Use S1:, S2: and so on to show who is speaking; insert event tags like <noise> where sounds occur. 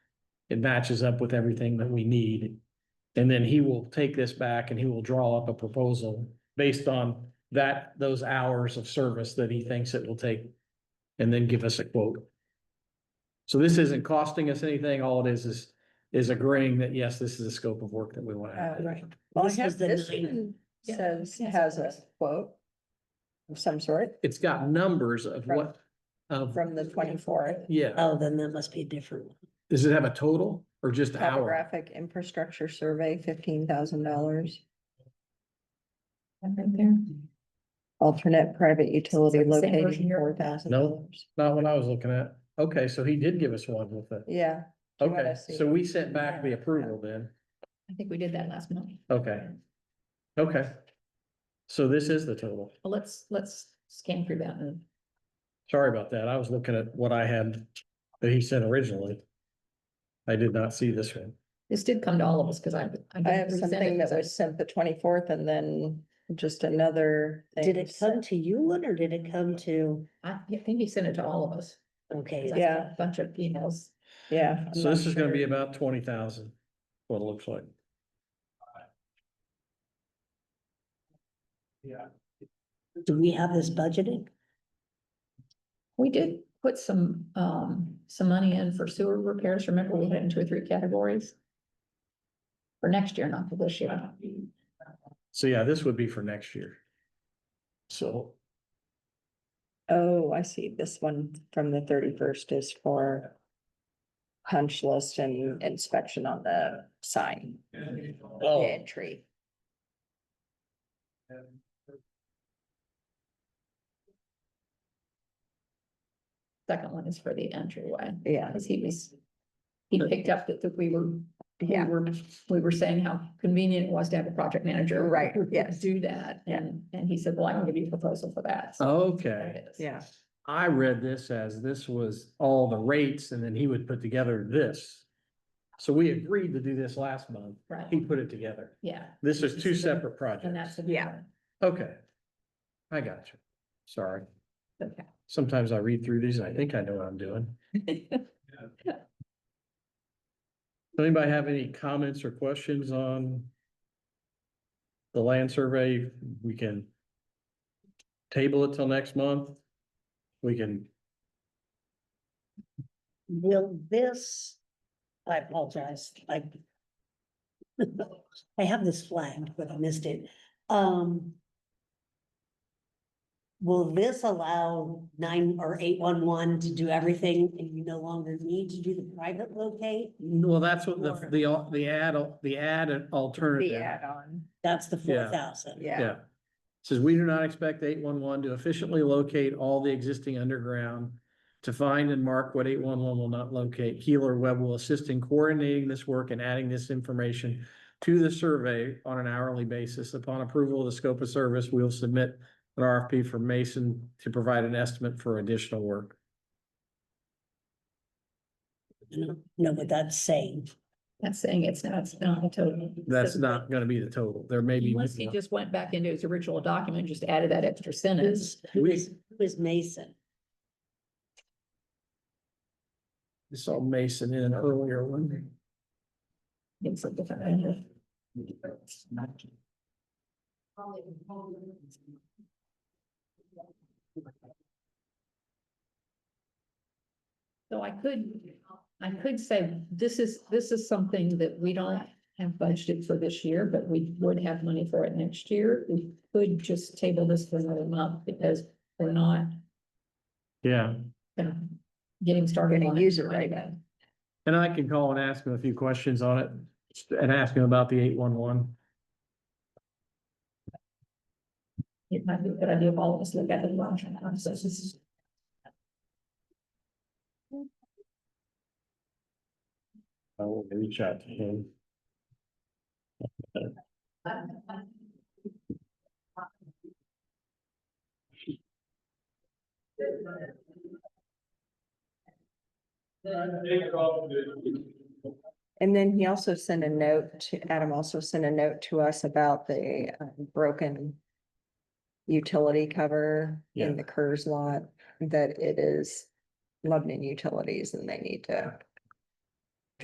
S1: it matches up with everything that we need. And then he will take this back and he will draw up a proposal based on that, those hours of service that he thinks it will take. And then give us a quote. So this isn't costing us anything. All it is, is, is agreeing that, yes, this is the scope of work that we want.
S2: Uh,
S1: to
S2: right.
S3: Well, I
S2: This
S3: have
S2: was the
S3: this
S2: nine-
S3: one Yeah,
S2: Says,
S3: yes,
S2: has a
S3: yes.
S2: quote of some sort
S1: It's got numbers of what, of,
S2: from the twenty-fourth.
S1: yeah.
S3: Oh, then that must be a different one.
S1: Does it have a total or just hour?
S2: Topographic infrastructure survey, fifteen thousand dollars. Alternate private utility
S3: Same version
S2: locating,
S3: here.
S2: four thousand
S1: No.
S2: dollars.
S1: Not what I was looking at. Okay, so he did give us one with it.
S2: Yeah, Do you wanna
S1: Okay,
S2: see?
S1: so we sent back the approval then.
S4: I think we did that last month.
S1: Okay, okay. So this is the total.
S4: Well, let's, let's scan through that and
S1: Sorry about that. I was looking at what I had that he sent originally. I did not see this one.
S4: this did come to all of us because I.
S2: I
S4: didn't
S2: have
S4: resend it
S2: something that
S4: 'cause I-
S2: was sent the twenty-fourth and then just another. thing
S3: Did it
S2: sent-
S3: come to you one or did it come to,
S4: I I think he sent it to all of us. 'cause I
S3: okay,
S4: got
S2: Yeah.
S4: a Bunch of emails.
S2: Yeah. I'm
S1: So
S2: not
S1: this is gonna
S2: sure.
S1: be about twenty thousand, what it looks like. Yeah.
S3: do we have this budgeted?
S4: We did put some, um, some money in for sewer repairs. Remember, we had it in two or three categories? For next year, not for this year.
S1: So yeah, this would be for next year. So,
S2: Oh, I see. This one from the thirty-first is for punch list and inspection on the sign.
S1: Oh.
S2: Entry.
S4: Second one is for the entryway,
S2: Yeah,
S4: because he was, he picked up that that we were, we
S2: yeah,
S4: were, we were saying how convenient it was to have a project manager.
S2: <laughs> Right, yes.
S4: Do that,
S2: Yeah. Oh,
S4: and, and he said, well, I can give you a proposal for that. So
S1: Oh, okay.
S4: there it is.
S2: yeah.
S1: I read this as this was all the rates and then he would put together this. So we agreed to do this last month. He
S4: Right,
S1: put it together.
S4: yeah,
S1: This is two
S4: This is a-
S1: separate
S4: and that's.
S1: projects.
S4: a
S2: Yeah.
S4: different-
S1: Okay. I got you. Sorry.
S4: Okay.
S1: Sometimes I read through these and I think I know what I'm doing. Does Anybody have any comments or questions on the land survey? We can table it till next month. We can,
S3: Will this, I apologize, I. <laughs> I have this flagged, but I missed it, um. Will this allow nine or eight one one to do everything and you no longer need to do the private locate?
S1: well, that's what the, the, the ad, the ad
S2: The
S1: alternative.
S2: add-on,
S3: That's the
S1: Yeah.
S3: four thousand.
S2: yeah.
S1: Yeah. Says we do not expect eight one one to efficiently locate all the existing underground. To find and mark what eight one one will not locate. Keeler Webb will assist in coordinating this work and adding this information. To the survey on an hourly basis. Upon approval of the scope of service, we'll submit an RFP for Mason to provide an estimate for additional work.
S3: Know what that's saying.
S4: <laughs> That's saying it's not, it's not a total.
S1: That's not gonna be the total. There may be.
S4: Unless he just went back into his original document, just added that extra sentence.
S3: Who's, who
S1: We-
S3: is, who is Mason?
S1: I Saw Mason in an earlier one.
S4: It's a different- So I could, I could say, this is, this is something that we don't have budgeted for this year, but we would have money for it next year. We could just table this for another month because we're not
S1: Yeah.
S4: you know, getting started.
S2: Gonna
S4: on it
S2: use it right
S4: anyway.
S2: now.
S1: And I can call and ask him a few questions on it and ask him about the eight one one.
S4: It might be a good idea if all of us look at it. once and I'm so-
S1: I will reach out to him.
S2: And then he also sent a note to, Adam also sent a note to us about the um, broken utility cover
S1: Yeah.
S2: in the Curz lot, that it is Lebanon Utilities and they need to